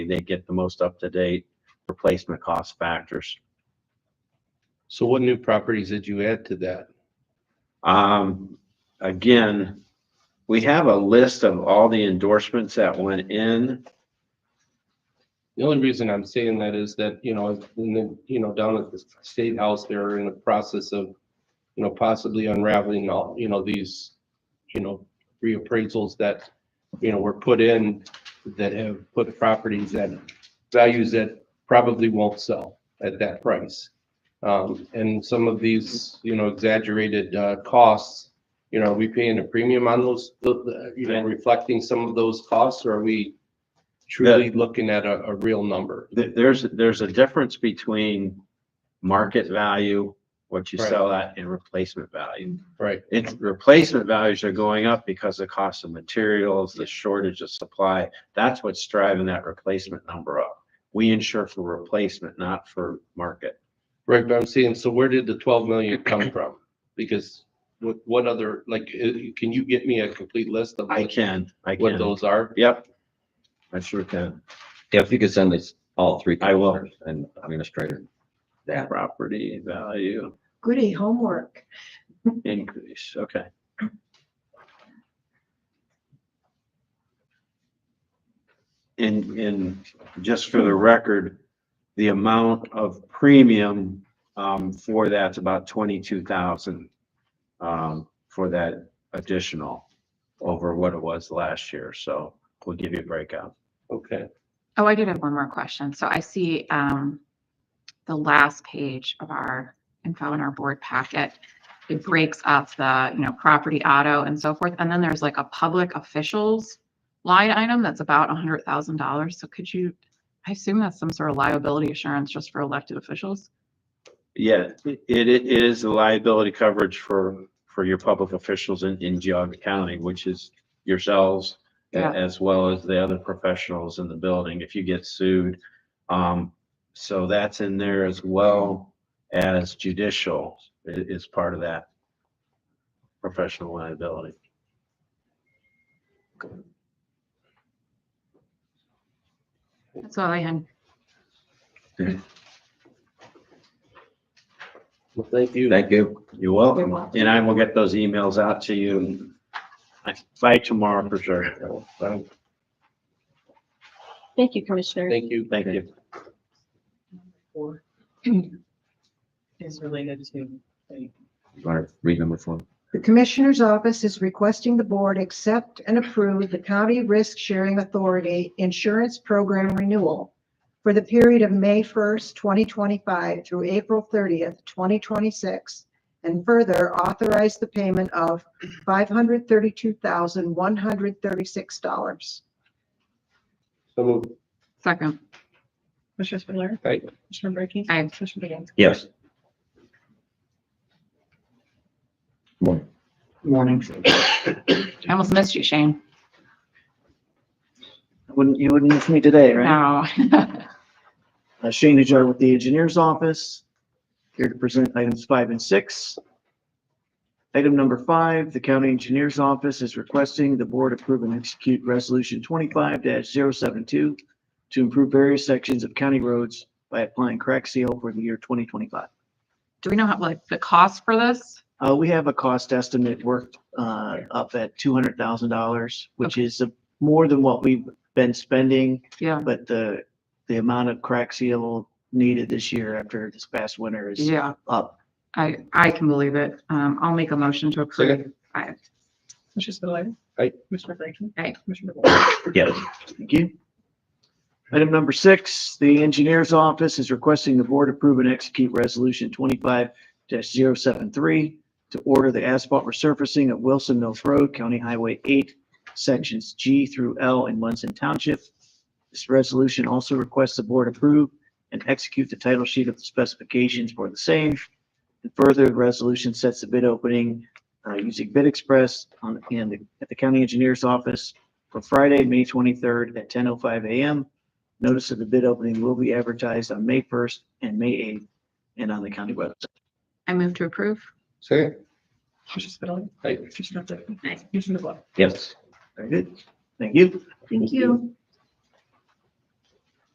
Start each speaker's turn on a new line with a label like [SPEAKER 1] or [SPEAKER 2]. [SPEAKER 1] they get the most up-to-date replacement cost factors.
[SPEAKER 2] So what new properties did you add to that?
[SPEAKER 1] Um, again, we have a list of all the endorsements that went in.
[SPEAKER 2] The only reason I'm saying that is that, you know, in the, you know, down at the state house, they're in the process of, you know, possibly unraveling all, you know, these, you know, reappraisals that, you know, were put in that have put properties at values that probably won't sell at that price. Um, and some of these, you know, exaggerated, uh, costs, you know, are we paying a premium on those, the- the- you know, reflecting some of those costs, or are we truly looking at a, a real number?
[SPEAKER 1] Th- There's, there's a difference between market value, what you
[SPEAKER 2] Right.
[SPEAKER 1] sell at, and replacement value.
[SPEAKER 2] Right.
[SPEAKER 1] It's replacement values are going up because of cost of materials, the shortage of supply. That's what's driving that replacement number up. We insure for replacement, not for market.
[SPEAKER 2] Right, but I'm seeing, so where did the twelve million come from? Because what, what other, like, uh, can you get me a complete list of
[SPEAKER 1] I
[SPEAKER 2] what-
[SPEAKER 1] can, I
[SPEAKER 2] what
[SPEAKER 1] can.
[SPEAKER 2] those are?
[SPEAKER 1] Yep. I sure can.
[SPEAKER 3] Yeah, if you could send us all three.
[SPEAKER 1] I will.
[SPEAKER 3] commissioners And administrator.
[SPEAKER 1] That property value
[SPEAKER 4] Goody homework.
[SPEAKER 1] increase, okay. And, and just for the record, the amount of premium, um, for that's about twenty-two thousand, um, for that additional over what it was last year, so we'll give you a breakout.
[SPEAKER 2] Okay,
[SPEAKER 5] Oh, I did have one more question. So I see um the last page of our info in our board packet. It breaks up the, you know, property auto and so forth. And then there's like a public officials line item that's about a hundred thousand dollars. So could you, I assume that's some sort of liability assurance just for elected officials?
[SPEAKER 1] Yeah, it, it is a liability coverage for, for your public officials in, in Geogga County, which is yourselves a-
[SPEAKER 5] Yeah.
[SPEAKER 1] as well as the other professionals in the building if you get sued. Um, so that's in there as well as judicial i- is part of that professional liability.
[SPEAKER 5] That's all I had.
[SPEAKER 2] well, thank you.
[SPEAKER 3] Thank you.
[SPEAKER 1] You're
[SPEAKER 4] You're
[SPEAKER 1] welcome.
[SPEAKER 4] welcome.
[SPEAKER 1] And I will get those emails out to you by tomorrow for sure.
[SPEAKER 2] Um,
[SPEAKER 6] Thank you, Commissioner.
[SPEAKER 2] Thank you.
[SPEAKER 1] Thank you.
[SPEAKER 7] four is related to the
[SPEAKER 3] You want to read number four?
[SPEAKER 4] The Commissioner's Office is requesting the board accept and approve the County Risk Sharing Authority Insurance Program Renewal for the period of May 1st, 2025 through April 30th, 2026, and further authorize the payment of $532,136.
[SPEAKER 2] So moved.
[SPEAKER 5] Second,
[SPEAKER 6] Commissioner Spudler.
[SPEAKER 2] Aye.
[SPEAKER 6] Commissioner Brackey.
[SPEAKER 5] Aye.
[SPEAKER 6] Commissioner Began.
[SPEAKER 3] Yes.
[SPEAKER 7] morning.
[SPEAKER 5] I almost missed you, Shane.
[SPEAKER 8] Wouldn't, you wouldn't miss me today, right?
[SPEAKER 5] No.
[SPEAKER 8] Uh, Shane Ajar with the Engineers Office, here to present items five and six. Item number five, the County Engineers Office is requesting the board approve and execute Resolution twenty-five 72 to improve various sections of county roads by applying crack seal for the year twenty twenty-five.
[SPEAKER 5] Do we know how, like, the cost for this?
[SPEAKER 8] Uh, we have a cost estimate worked, uh, up at two hundred thousand dollars, which is uh, more than what we've been spending.
[SPEAKER 5] Yeah,
[SPEAKER 8] But the, the amount of crack seal needed this year after this past winter is
[SPEAKER 5] yeah,
[SPEAKER 8] up.
[SPEAKER 5] I, I can believe it. Um, I'll make a motion to approve. Aye.
[SPEAKER 6] Commissioner Spudler.
[SPEAKER 2] Aye.
[SPEAKER 6] Commissioner Brackey.
[SPEAKER 5] Aye.
[SPEAKER 6] Commissioner Began.
[SPEAKER 3] Yes.
[SPEAKER 8] Thank you. Item number six, the engineer's office is requesting the board approve and execute resolution twenty-five 73 to order the asphalt resurfacing at Wilson Mills Road, County Highway eight, sections G through L in Munson Township. This resolution also requests the board approve and execute the title sheet of the specifications for the same. And further, the resolution sets the bid opening uh, using Bid Express on, and the- at the county engineer's office for Friday, May twenty-third at ten oh five AM. Notice of the bid opening will be advertised on May first and May eighth and on the county website.
[SPEAKER 5] I move to approve.
[SPEAKER 2] Second.
[SPEAKER 6] Commissioner Spudler.
[SPEAKER 2] Aye.
[SPEAKER 6] Commissioner Brackey. Commissioner Began.
[SPEAKER 3] Yes.
[SPEAKER 8] Very good. Thank you.
[SPEAKER 4] Thank you.